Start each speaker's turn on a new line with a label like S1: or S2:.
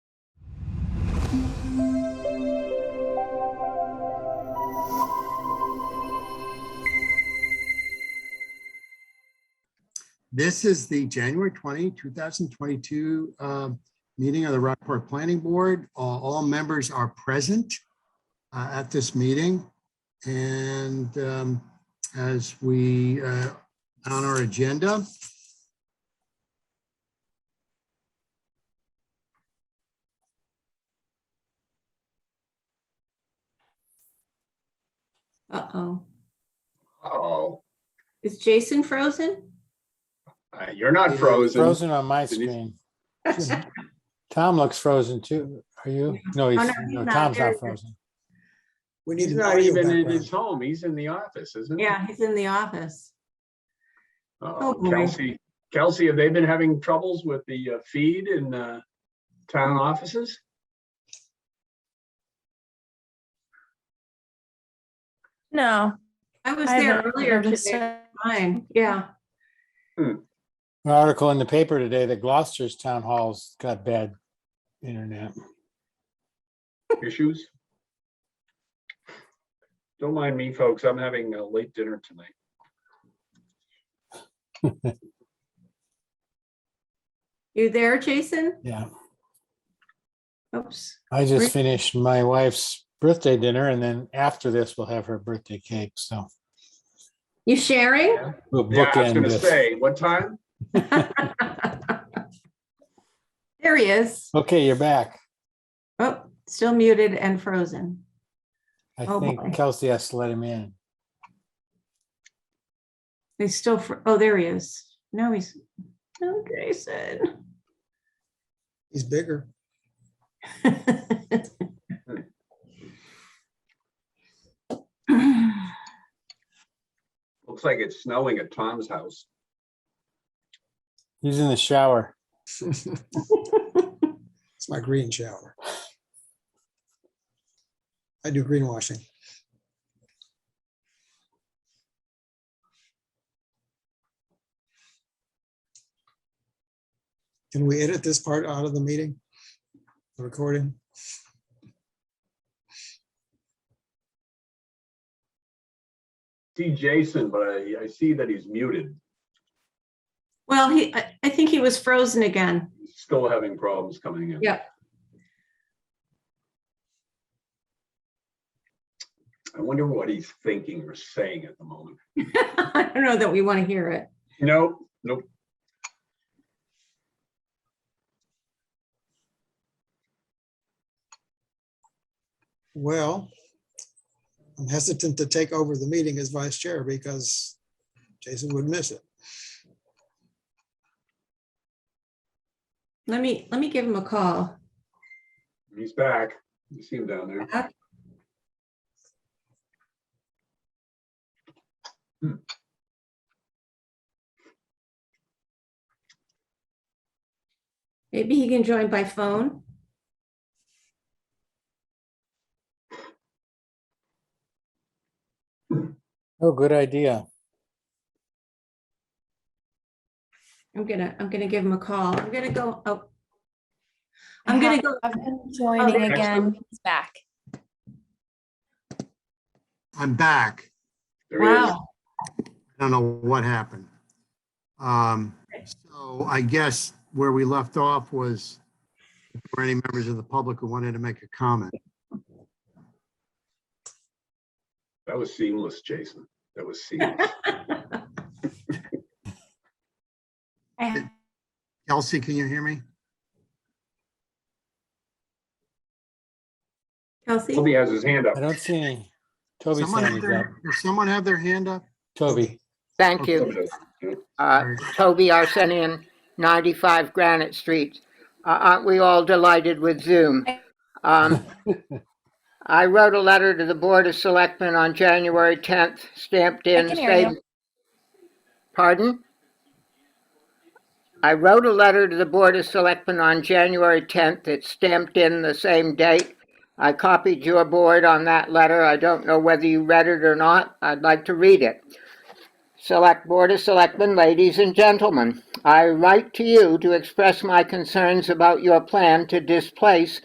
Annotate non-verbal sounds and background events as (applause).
S1: This is the January 20, 2022 um, meeting of the Rockport Planning Board. All all members are present uh, at this meeting. And um, as we, uh, on our agenda,
S2: Uh-oh.
S3: Oh,
S2: Is Jason frozen?
S3: uh, you're not
S1: Yeah,
S3: frozen.
S4: Frozen on my
S3: Denise?
S4: screen. Tom looks frozen too. Are you? No, he's,
S2: Oh, no, he's
S4: no,
S2: not.
S4: Tom's
S2: There
S4: not
S2: he is.
S4: frozen.
S5: We need
S3: He's
S5: an
S3: not
S5: audio
S3: even in
S5: background.
S3: his home. He's in the office, isn't he?
S2: Yeah, he's in the office.
S3: Uh-oh,
S2: Oh, boy.
S3: Kelsey, Kelsey, have they been having troubles with the uh, feed in uh, town offices?
S6: No.
S2: I was
S6: I
S2: there
S6: haven't
S2: earlier
S6: noticed
S2: today.
S6: it.
S2: Fine, yeah.
S4: An article in the paper today that Gloucester's town halls got bad internet.
S3: Issues? Don't mind me, folks. I'm having a late dinner tonight.
S2: You there, Jason?
S4: Yeah,
S2: Oops.
S4: I just
S2: Great.
S4: finished my wife's birthday dinner and then after this we'll have her birthday cake, so
S2: You sharing?
S4: we'll
S3: Yeah, I was
S4: bookend
S3: gonna
S4: this.
S3: say, what time?
S2: There he is.
S4: Okay, you're back.
S2: Oh, still muted and frozen.
S4: I
S2: Oh, boy.
S4: think Kelsey has to let him in.
S2: He's still, fr- oh, there he is. No, he's, no, Jason. (laughs)
S5: He's bigger.
S3: Looks like it's snowing at Tom's house.
S4: He's in the shower.
S5: It's my green shower. I do greenwashing. Can we edit this part out of the meeting? The recording?
S3: See Jason, but I, I see that he's muted.
S2: Well, he, I, I think he was frozen again. (laughs)
S3: He's Still having problems coming in.
S2: Yeah.
S3: I wonder what he's thinking or saying at the moment.
S2: I don't know that we want to hear it.
S3: Nope, nope.
S5: Well, I'm hesitant to take over the meeting as vice chair because Jason would miss it.
S2: Let me, let me give him a call.
S3: He's back. You see him down there.
S2: Maybe he can join by phone.
S4: Oh, good idea.
S2: I'm gonna, I'm gonna give him a call. I'm gonna go, oh.
S6: I
S2: I'm gonna
S6: have-
S2: go,
S6: I've been joining
S3: there-
S6: again. He's back.
S1: I'm back.
S3: There he is.
S2: wow,
S1: I don't know what happened. Um, So I guess where we left off was for any members of the public who wanted to make a comment.
S3: That was seamless, Jason. That was seamless.
S6: I have-
S1: Kelsey, can you hear me?
S3: Toby
S2: Kelsey.
S3: has his hand up.
S4: I don't see any. Toby's
S1: Someone
S4: hand
S1: have
S4: is up.
S1: their- Does someone have their hand up?
S4: Toby,
S7: Thank
S3: Toby
S7: you.
S3: does.
S7: Uh,
S1: Sorry.
S7: Toby Arsenian, 95 Granite Street. Uh, Aren't we all delighted with Zoom? Um, I wrote a letter to the Board of Selectmen on January 10th, stamped in.
S6: can hear you.
S7: stating- Pardon? I wrote a letter to the Board of Selectmen on January 10th. It's stamped in the same date. I copied your board on that letter. I don't know whether you read it or not. I'd like to read it. Select Board of Selectmen, ladies and gentlemen, I write to you to express my concerns about your plan to displace